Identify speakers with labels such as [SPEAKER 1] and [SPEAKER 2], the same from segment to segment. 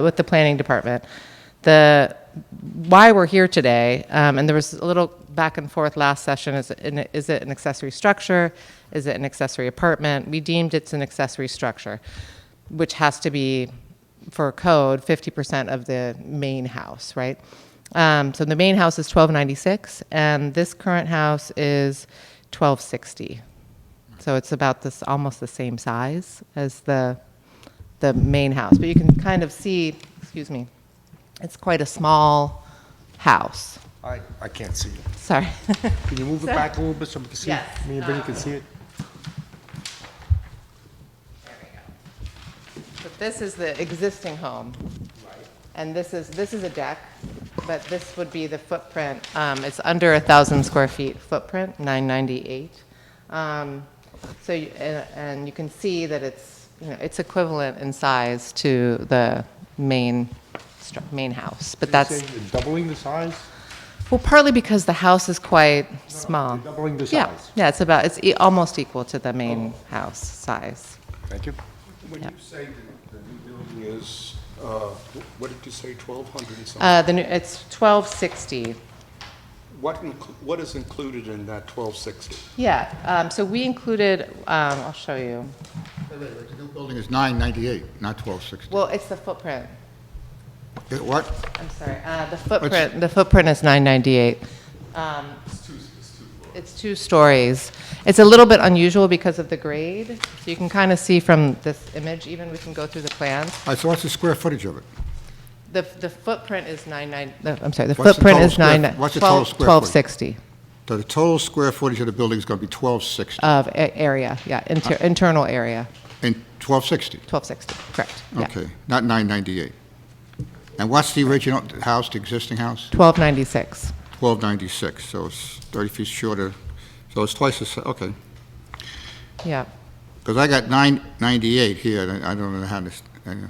[SPEAKER 1] with the planning department. The, why we're here today, um, and there was a little back and forth last session, is it, an- is it an accessory structure? Is it an accessory apartment? We deemed it's an accessory structure, which has to be, for code, 50% of the main house, right? Um, so the main house is 1296, and this current house is 1260. So it's about this, almost the same size as the, the main house. But you can kind of see, excuse me, it's quite a small house.
[SPEAKER 2] I, I can't see it.
[SPEAKER 1] Sorry.
[SPEAKER 2] Can you move it back a little bit so we can see it?
[SPEAKER 1] Yes.
[SPEAKER 2] Me and Vinnie can see it?
[SPEAKER 1] But this is the existing home. And this is, this is a deck, but this would be the footprint. Um, it's under a thousand square feet footprint, nine ninety-eight. Um, so, you- and, and you can see that it's, you know, it's equivalent in size to the main, stru- main house, but that's,
[SPEAKER 2] You're Doubling the size?
[SPEAKER 1] well, partly because the house is quite small.
[SPEAKER 2] You're Doubling the
[SPEAKER 1] Yeah,
[SPEAKER 2] size? Oh.
[SPEAKER 1] yeah, it's about, it's e- almost equal to the main house size.
[SPEAKER 2] Thank you.
[SPEAKER 3] When you say the the new building is, uh, wh- what did you say, 1,200 and something?
[SPEAKER 1] Uh, the new, it's twelve sixty.
[SPEAKER 3] What, inclu- what is included in that 1,260?
[SPEAKER 1] Yeah, um, so we included, um, I'll show you.
[SPEAKER 4] Wait, wait, wait, The new building is 998, not 1260.
[SPEAKER 1] Well, it's the footprint.
[SPEAKER 4] The What?
[SPEAKER 1] I'm sorry, uh, the footprint, the footprint is nine ninety-eight. Um, it's two stories. It's a little bit unusual because of the grade. So you can kind of see from this image, even we can go through the plans.
[SPEAKER 4] All right, so what's the square footage of it?
[SPEAKER 1] The, the footprint is nine nine, the- I'm sorry, the
[SPEAKER 4] What's the
[SPEAKER 1] footprint
[SPEAKER 4] total
[SPEAKER 1] is
[SPEAKER 4] square-
[SPEAKER 1] nine,
[SPEAKER 4] what's the total
[SPEAKER 1] twelve,
[SPEAKER 4] square
[SPEAKER 1] twelve
[SPEAKER 4] footage?
[SPEAKER 1] sixty
[SPEAKER 4] So the total square footage of the building is going to be 1260,
[SPEAKER 1] of a- area, yeah, inter, internal area,
[SPEAKER 4] and 1260,
[SPEAKER 1] twelve sixty, correct, yeah.
[SPEAKER 4] okay, not 998. And what's the original house, the existing house?
[SPEAKER 1] Twelve ninety-six.
[SPEAKER 4] 1296, so it's 30 feet shorter, so it's twice the, si- okay.
[SPEAKER 1] Yeah,
[SPEAKER 4] Because I got 998 here, and I I don't know how this, I know.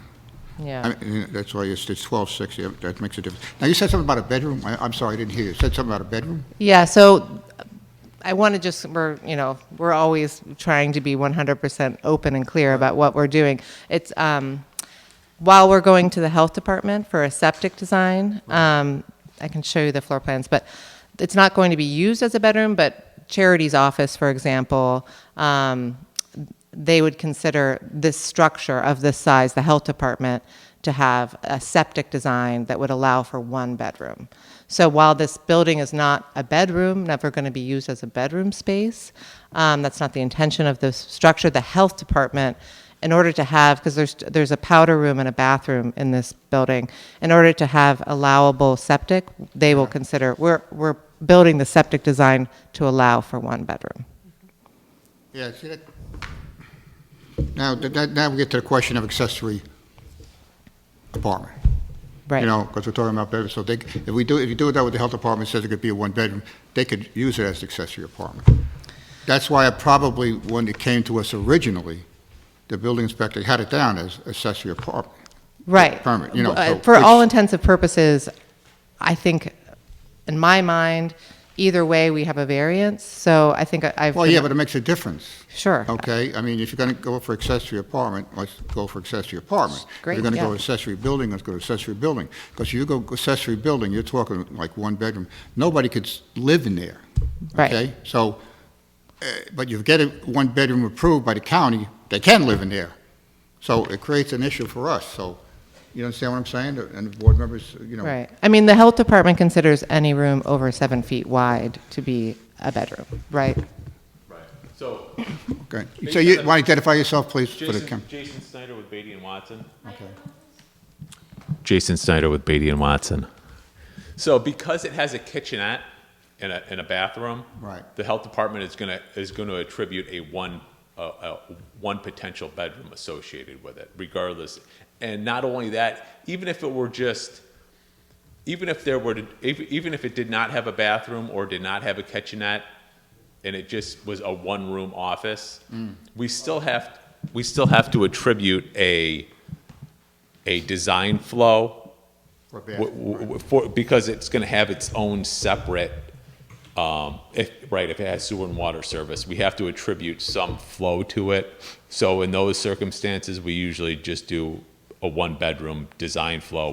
[SPEAKER 4] I
[SPEAKER 1] yeah.
[SPEAKER 4] mean, that's why it's it's 1260, uh, that makes a difference. Now, you said something about a bedroom, I- I'm sorry, I didn't hear you, you said something about a bedroom?
[SPEAKER 1] Yeah, so I want to just, we're, you know, we're always trying to be 100% open and clear about what we're doing. It's, um, while we're going to the health department for a septic design, um, I can show you the floor plans, but it's not going to be used as a bedroom, but charity's office, for example, um, they would consider this structure of this size, the health department, to have a septic design that would allow for one bedroom. So while this building is not a bedroom, never going to be used as a bedroom space, um, that's not the intention of this structure. The health department, in order to have, because there's there's a powder room and a bathroom in this building, in order to have allowable septic, they will consider we're we're building the septic design to allow for one bedroom.
[SPEAKER 4] Yeah, see that? Now, th- that- now we get to the question of accessory apartment.
[SPEAKER 1] Right.
[SPEAKER 4] You know, because we're talking about bedrooms, so they, c- if we do, if you do it that with the health department, says it could be a one-bedroom, they could use it as accessory apartment. That's why I probably, when it came to us originally, the building inspector had it down as accessory apartment.
[SPEAKER 1] Right.
[SPEAKER 4] Permit, you know,
[SPEAKER 1] Uh,
[SPEAKER 4] so
[SPEAKER 1] For
[SPEAKER 4] which-
[SPEAKER 1] all intents and purposes, I think, in my mind, either way, we have a variance, so I think I- I've.
[SPEAKER 4] Well,
[SPEAKER 1] been-
[SPEAKER 4] yeah, but it makes a difference.
[SPEAKER 1] Sure.
[SPEAKER 4] Okay, I mean, if you're going to go for accessory apartment, let's go for accessory apartment.
[SPEAKER 1] Great,
[SPEAKER 4] If you're going to
[SPEAKER 1] yeah.
[SPEAKER 4] go accessory building, let's go to accessory building. Because you go accessory building, you're talking like one bedroom, nobody could s- live in there.
[SPEAKER 1] Right.
[SPEAKER 4] Okay, so, uh, but you get a one bedroom approved by the county, they can live in there. So it creates an issue for us, so, you understand what I'm saying? And the board members, you know.
[SPEAKER 1] Right. I mean, the health department considers any room over seven feet wide to be a bedroom, right?
[SPEAKER 5] Right. So,
[SPEAKER 4] Okay, so you, want to identify yourself, please, for the
[SPEAKER 5] Jason,
[SPEAKER 4] cam?
[SPEAKER 5] Jason Snyder with Beatty and Watson.
[SPEAKER 4] Okay.
[SPEAKER 5] Jason Snyder with Beatty and Watson. So, because it has a kitchenette and a, and a bathroom,
[SPEAKER 4] Right.
[SPEAKER 5] the health department is gonna is gonna attribute a one a, a one potential bedroom associated with it, regardless. And not only that, even if it were just even if there were to, if, even if it did not have a bathroom or did not have a kitchenette and it just was a one room office we still have we still have to attribute a a design flow
[SPEAKER 4] Or bathroom,
[SPEAKER 5] w- w- w- for, because it's going to have its own separate um, if, right if it has sewer and water service we have to attribute some flow to it so in those circumstances we usually just do a one-bedroom design flow